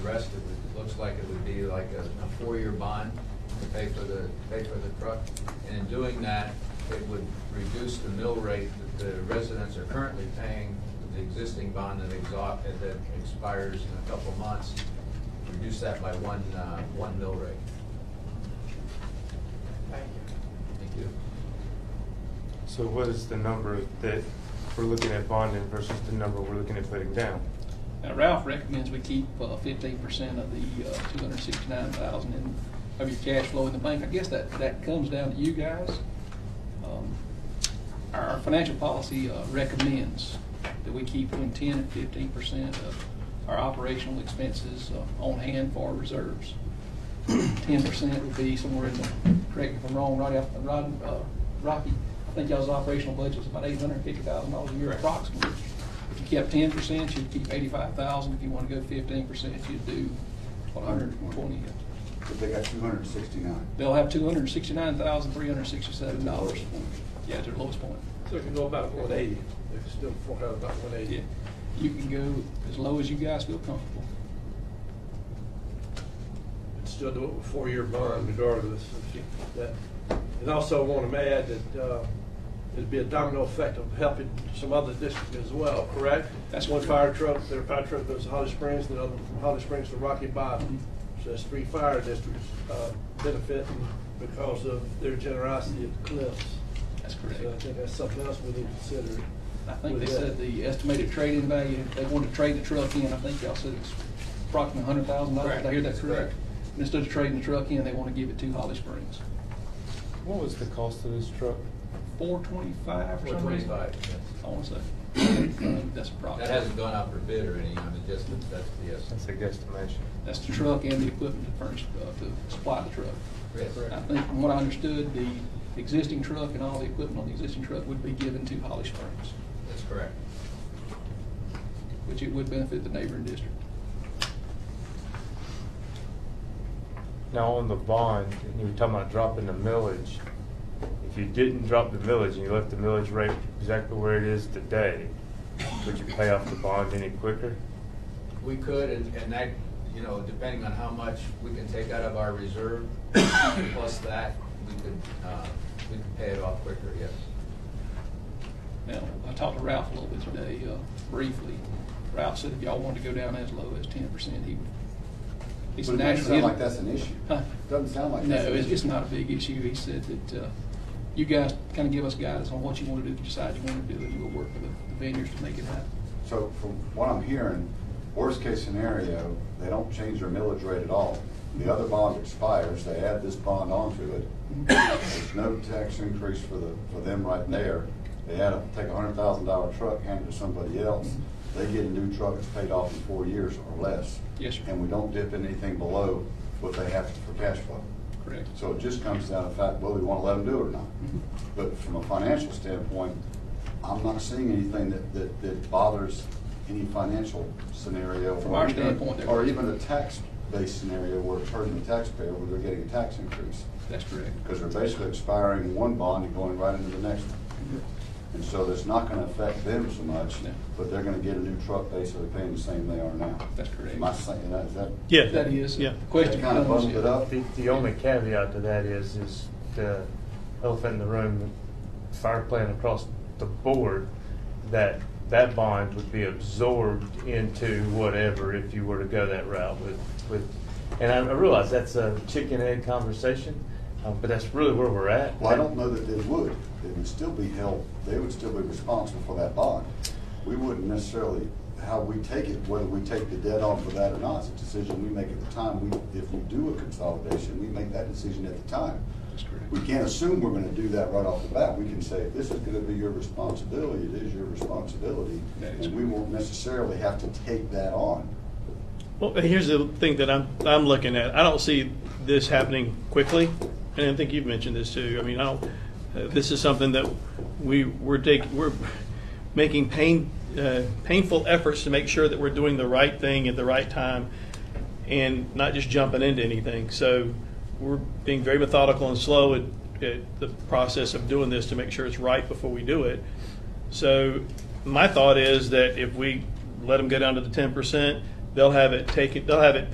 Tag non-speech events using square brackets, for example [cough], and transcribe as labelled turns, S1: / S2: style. S1: rest, it would, looks like it would be like a, a four-year bond to pay for the, pay for the truck. And in doing that, it would reduce the mill rate that the residents are currently paying, the existing bond that exhaust, that expires in a couple months, reduce that by one, uh, one mill rate.
S2: Thank you.
S1: Thank you.
S3: So what is the number that we're looking at bonding versus the number we're looking at putting down?
S4: Now Ralph recommends we keep uh, fifteen percent of the uh, two hundred sixty-nine thousand in, of your cash flow in the bank. I guess that, that comes down to you guys. Um, Our our financial policy uh, recommends that we keep between ten and fifteen percent of our operational expenses uh, on hand for reserves. [clears throat] Ten percent would be somewhere in the, correct me if I'm wrong, right out, Rod, uh, Rocky, I think y'all's operational budget was about eight hundred and fifty thousand dollars a year approximately. If you kept ten percent, you'd keep eighty-five thousand. If you want to go fifteen percent, you'd do one hundred and twenty.
S5: But they got two hundred and sixty-nine.
S4: They'll have two hundred and sixty-nine thousand, three hundred and sixty-seven dollars. Yeah, to the lowest point.
S2: So if you go about one eighty, if you still fork out about one
S4: Yeah,
S2: eighty.
S4: you can go as low as you guys feel comfortable.
S2: and still do it with four-year bond regardless of she- that. And also want to add that uh, it'd be a domino effect of helping some other districts as well, correct?
S4: That's
S2: One fire
S4: correct.
S2: truck, their fire truck goes to Holly Springs, the other from Holly Springs to Rocky Bottom. So that's three fire districts uh, benefiting because of their generosity of cliffs.
S4: That's
S2: So I
S4: correct.
S2: think that's something else we need to consider.
S4: I think they
S2: with that.
S4: said the estimated trade-in value, if they wanted to trade the truck in, I think y'all said it's approximately hundred thousand dollars. Did I hear that
S1: Correct.
S4: correct? And Instead of trading the truck in, they want to give it to Holly Springs.
S3: What was the cost of this truck?
S4: Four twenty-five or
S1: Four
S4: something?
S1: twenty-five,
S4: I want to say.
S1: that
S4: That's approximately.
S1: hasn't gone out for bid or any, I mean, just, that- that's the
S3: That's
S1: estimate.
S3: a guesstimation.
S4: That's the truck and the equipment to furnish, uh, to supply the truck.
S1: Yes.
S4: I think from what I understood, the existing truck and all the equipment on the existing truck would be given to Holly Springs,
S1: That's correct.
S4: which it would benefit the neighboring district.
S3: Now, on the bond, and you were talking about dropping the millage. If you didn't drop the millage and you left the millage rate exactly where it is today, would you pay off the bond any quicker?
S1: We could, and, and that, you know, depending on how much we can take out of our reserve, [coughs] plus that, we could, uh, we could pay it off quicker, yes.
S4: Now, I talked to Ralph a little bit today, uh, briefly. Ralph said if y'all wanted to go down as low as ten percent, he would. It's
S5: But it doesn't
S4: naturally-
S5: sound like that's an issue.
S4: Huh?
S5: Doesn't sound like
S4: No,
S5: that's an
S4: it's,
S5: issue.
S4: it's not a big issue. He said that, uh, you guys kind of give us guidance on what you want to do, decide you want to do, and we'll work with the vendors to make it happen.
S5: So from what I'm hearing, worst case scenario, they don't change their millage rate at all. The other bond expires, they add this bond onto it.
S4: Mm-hmm.
S5: There's no tax increase for the, for them right there. They had to take a hundred thousand dollar truck, hand it to somebody else.
S4: Mm-hmm.
S5: They get a new truck, it's paid off in four years or less.
S4: Yes, sir.
S5: And we don't dip in anything below what they have for cash flow.
S4: Correct.
S5: So it just comes down to fact, whether we want to let them do it or not. But from a financial standpoint, I'm not seeing anything that, that, that bothers any financial scenario.
S4: From
S5: or
S4: our
S5: even-
S4: standpoint, they're-
S5: Or even a tax-based scenario where it's hurting the taxpayer, where they're getting a tax increase.
S4: That's correct.
S5: Because they're basically expiring one bond and going right into the next one. And so that's not going to affect them so much,
S4: No.
S5: but they're going to get a new truck basically paying the same they are now.
S4: That's correct.
S5: Am I saying that, is that?
S6: Yeah.
S4: That is,
S6: Yeah.
S4: the question
S5: Kind of
S4: becomes,
S5: bundled it up?
S3: The, the only caveat to that is, is the elephant in the room, the fire plan across the board, that that bond would be absorbed into whatever if you were to go that route with, with, and I I realize that's a chicken egg conversation, uh, but that's really where we're at.
S5: Well, I don't know that they would. They would still be held, they would still be responsible for that bond. We wouldn't necessarily, how we take it, whether we take the debt on for that or not, is a decision we make at the time. We, if we do a consolidation, we make that decision at the time.
S4: That's correct.
S5: We can't assume we're gonna do that right off the bat. We can say, this is gonna be your responsibility, it is your responsibility.
S4: That is
S5: And we won't necessarily have to take that on.
S6: Well, here's the thing that I'm, I'm looking at. I don't see this happening quickly, and I think you've mentioned this too. I mean, I don't, uh, this is something that we, we're taking, we're making pain, uh, painful efforts to make sure that we're doing the right thing at the right time and not just jumping into anything. So we're being very methodical and slow at, at the process of doing this to make sure it's right before we do it. So my thought is that if we let them go down to the ten percent, they'll have it taken, they'll have it